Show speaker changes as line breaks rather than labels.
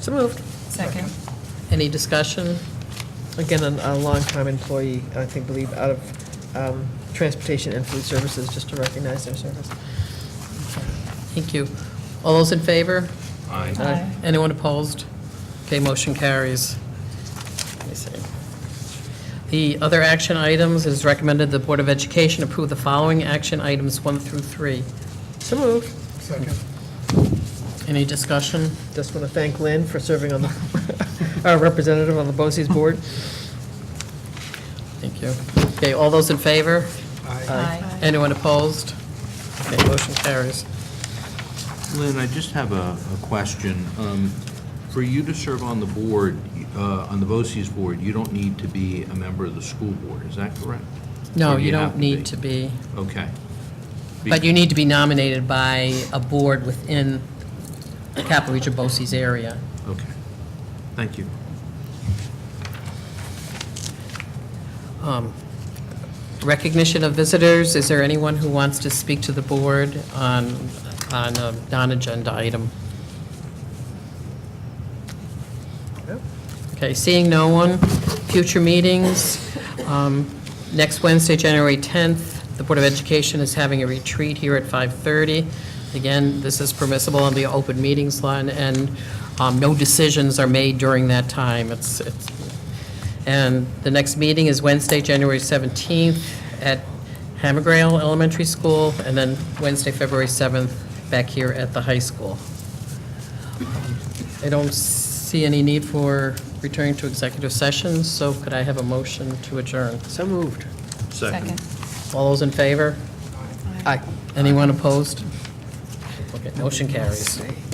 So moved.
Second.
Any discussion?
Again, an- a longtime employee, I think, believe, out of um, Transportation and Food Services, just to recognize their service.
Thank you. All those in favor?
Aye.
Uh,
Aye.
Anyone opposed? Okay, motion carries. Let me see. The other action items, it is recommended the Board of Education approve the following action items one through three.
So moved.
Second.
Any discussion?
Just want to thank Lynn for serving on the, our representative on the BOCES board.
Thank you. Okay, all those in favor?
Aye.
Anyone opposed? Okay, motion carries.
Lynn, I just have a a question. Um, For you to serve on the board, uh, on the BOCES board, you don't need to be a member of the school board, is that correct?
No,
Or do
you
have
don't need to be,
Okay.
but you need to be nominated by a board within the Capital Region BOCES area.
Okay. Thank you.
Um, Recognition of visitors, is there anyone who wants to speak to the board on, on a non-agenda item? Okay, seeing no one, future meetings, um, next Wednesday, January 10th, the Board of Education is having a retreat here at 5:30. Again, this is permissible on the open meetings line, and um, no decisions are made during that time. It's, it's- and the next meeting is Wednesday, January 17th at Hammergrail Elementary School, and then Wednesday, February 7th, back here at the high school. I don't see any need for returning to executive session, so could I have a motion to adjourn?
So moved.
Second.
All those in favor?
Aye.
Anyone opposed? Okay, motion carries.
Say.